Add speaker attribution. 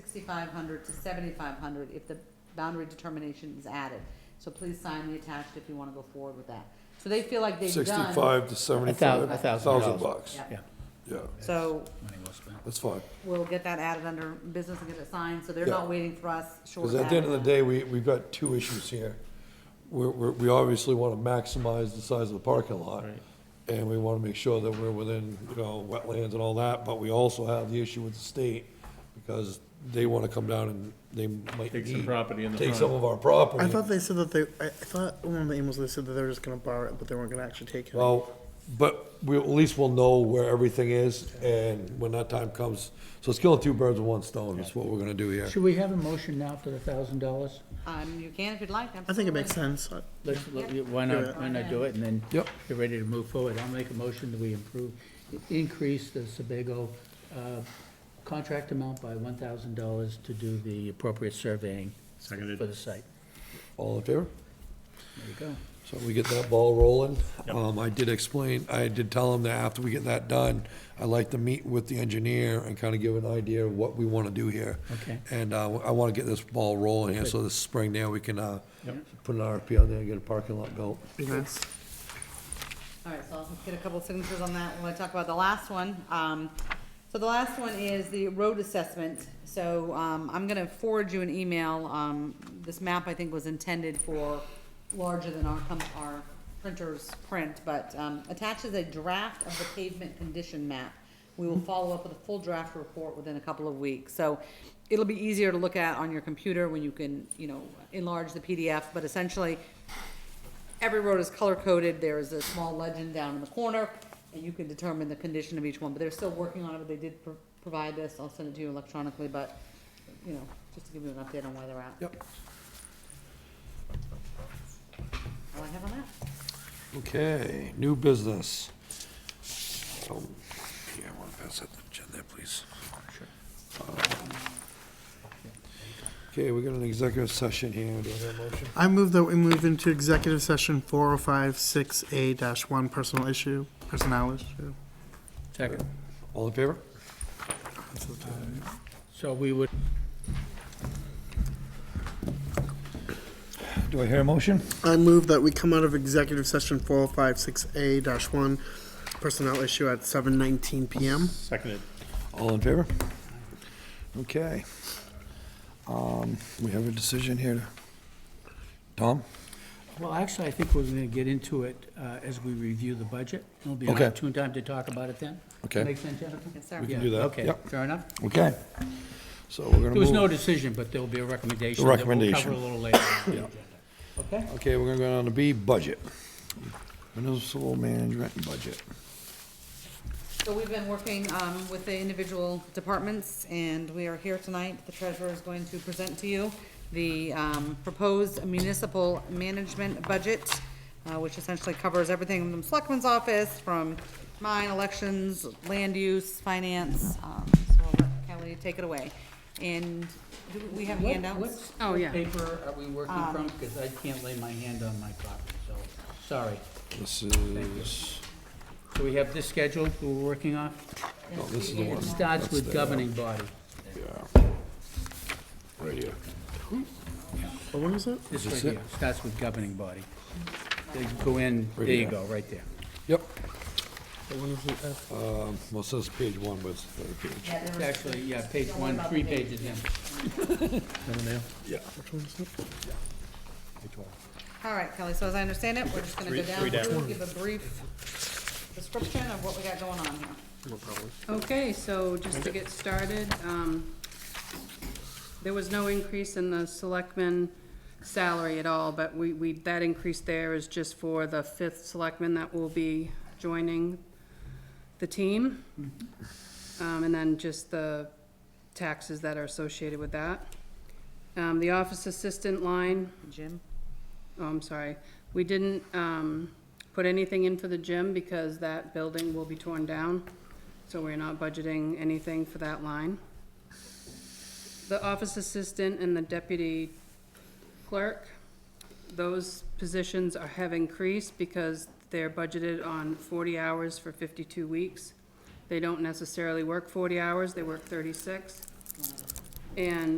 Speaker 1: sixty-five hundred to seventy-five hundred if the boundary determination is added. So please sign the attached if you wanna go forward with that. So they feel like they've done.
Speaker 2: Sixty-five to seventy-five,
Speaker 3: a thousand
Speaker 2: thousand
Speaker 3: dollars.
Speaker 2: bucks,
Speaker 1: Yeah.
Speaker 2: yeah,
Speaker 3: Yeah,
Speaker 1: So
Speaker 3: money well spent.
Speaker 2: that's fine.
Speaker 1: we'll get that added under business and get it signed, so they're
Speaker 2: Yeah.
Speaker 1: not waiting for us short
Speaker 2: Because
Speaker 1: of
Speaker 2: at the end of the
Speaker 1: that.
Speaker 2: day, we, we've got two issues here. We're, we're, we obviously want to maximize the size of the parking lot. And we want to make sure that we're within, you know, wetlands and all that, but we also have the issue with the state because they want to come down and they might
Speaker 4: Take some
Speaker 2: need-
Speaker 4: property in the
Speaker 2: Take
Speaker 4: front.
Speaker 2: some of our property.
Speaker 5: I thought they said that they, I I thought one of the emails they said that they were just gonna borrow it, but they weren't gonna actually take it.
Speaker 2: Well, but we, at least we'll know where everything is and when that time comes. So it's killing two birds with one stone, That's what we're going to do here.
Speaker 3: Should we have a motion now for the thousand dollars?
Speaker 1: Um, you can if you'd like, absolutely.
Speaker 5: I think it makes sense. I-
Speaker 3: Let's, let- why not, why not do it, and then
Speaker 2: Yep.
Speaker 3: you're ready to move forward. I'll make a motion that we improve, increase the Sebago uh, contract amount by one thousand dollars to do the appropriate surveying
Speaker 4: Seconded.
Speaker 3: for the site.
Speaker 2: All in favor?
Speaker 3: There you go.
Speaker 2: So we get that ball rolling. Um, I did explain, I did tell him that after we get that done, I'd like to meet with the engineer and kind of give an idea of what we want to do here.
Speaker 3: Okay.
Speaker 2: And, uh, I want to get this ball rolling here, so this spring there, we can, uh, put an RFP out there and get a parking lot built.
Speaker 5: Be nice.
Speaker 1: All right, so I'll get a couple signatures on that when I talk about the last one. Um, so the last one is the road assessment. So, um, I'm gonna forward you an email. Um, this map, I think, was intended for larger than our, com- our printer's print, but, um, attaches a draft of the pavement condition map. We will follow up with a full draft report within a couple of weeks. So it'll be easier to look at on your computer when you can, you know, enlarge the PDF, but essentially, every road is color coded, there is a small legend down in the corner, and you can determine the condition of each one, but they're still working on it, but they did pro- provide this, I'll send it to you electronically, but, you know, just to give you an update on where they're at.
Speaker 2: Yep.
Speaker 1: All I have on that.
Speaker 2: Okay, new business. Oh, Yeah, I want to pass that to Jen there, please. Um, Okay, we got an executive session here. Do I have a motion?
Speaker 5: I move that we move into executive session four oh five six A dash one, personal issue, personnel issue.
Speaker 3: Second.
Speaker 2: All in favor?
Speaker 3: So we would,
Speaker 2: Do I hear a motion?
Speaker 5: I move that we come out of executive session four oh five six A dash one, personnel issue at seven nineteen PM.
Speaker 4: Seconded.
Speaker 2: All in favor? Okay. Um, We have a decision here. to- Tom?
Speaker 3: well, actually, I think we're gonna get into it uh, as we review the budget. It'll be an
Speaker 2: Okay.
Speaker 3: opportune time to talk about it then.
Speaker 2: Okay.
Speaker 3: Make sense, Jennifer?
Speaker 1: Yes, sir.
Speaker 2: We can
Speaker 3: Yeah,
Speaker 2: do that.
Speaker 3: Okay,
Speaker 2: Yep.
Speaker 3: fair enough.
Speaker 2: Okay. So we're gonna
Speaker 3: There was no
Speaker 2: move.
Speaker 3: decision, but there'll be a recommendation.
Speaker 2: A
Speaker 3: that we'll cover
Speaker 2: recommendation.
Speaker 3: a little later. on the agenda. Okay?
Speaker 2: Okay, we're gonna go down to B, budget. Municipal management budget.
Speaker 1: So we've been working, um, with the individual departments, and we are here tonight, the treasurer is going to present to you the, um, proposed municipal management budget, uh, which essentially covers everything from Selectman's office, from mine, elections, land use, finance, um, so we'll let Kelly take it away. And do we have
Speaker 3: What-
Speaker 1: handouts?
Speaker 3: what's-
Speaker 1: Oh,
Speaker 3: what
Speaker 1: yeah. Um,
Speaker 3: paper are we working from? Because I can't lay my hand on my copy, so, sorry.
Speaker 2: This is,
Speaker 3: So we have this schedule we're working on?
Speaker 2: no, Oh, this is the
Speaker 3: It
Speaker 2: one.
Speaker 3: starts
Speaker 2: That's
Speaker 3: with
Speaker 2: the- uh,
Speaker 3: governing body.
Speaker 2: Yeah. Right here.
Speaker 5: What one is it?
Speaker 3: This
Speaker 2: Is
Speaker 3: right
Speaker 2: this
Speaker 3: here, starts with governing body.
Speaker 1: Mm-hmm.
Speaker 3: They go in, there
Speaker 2: Right
Speaker 3: you
Speaker 2: here.
Speaker 3: go, right there.
Speaker 2: Yep.
Speaker 5: What one is it? Uh,
Speaker 2: Well, it says page one, but it's the third page.
Speaker 1: Yeah, there
Speaker 3: It's
Speaker 1: was-
Speaker 3: actually, yeah, page one, three pages in.
Speaker 2: Yeah.
Speaker 1: All right, Kelly, so as I understand it, we're just gonna go down through, give a brief description of what we got going on here.
Speaker 6: Okay, so just to get started, um, there was no increase in the selectmen salary at all, but we, we, that increase there is just for the fifth selectman that will be joining the team. Um, and then just the taxes that are associated with that. Um, the office assistant line,
Speaker 1: Jim?
Speaker 6: oh, I'm sorry, we didn't, um, put anything in for the gym because that building will be torn down, so we're not budgeting anything for that line. The office assistant and the deputy clerk, those positions are, have increased because they're budgeted on forty hours for fifty-two weeks. They don't necessarily work forty hours, they work thirty-six. And